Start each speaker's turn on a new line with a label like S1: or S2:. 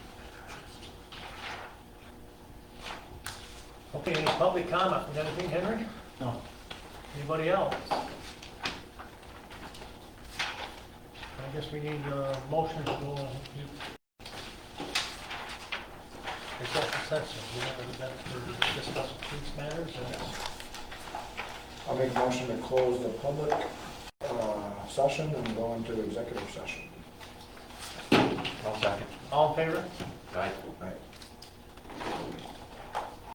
S1: Okay, any public comment? You got anything, Henry?
S2: No.
S1: Anybody else? I guess we need a motion to go on. Executive session, we have that for discussing these matters, and
S3: I'll make a motion to close the public uh, session and go into executive session.
S4: I'll second.
S1: all in favor?
S4: Aye.
S3: Right.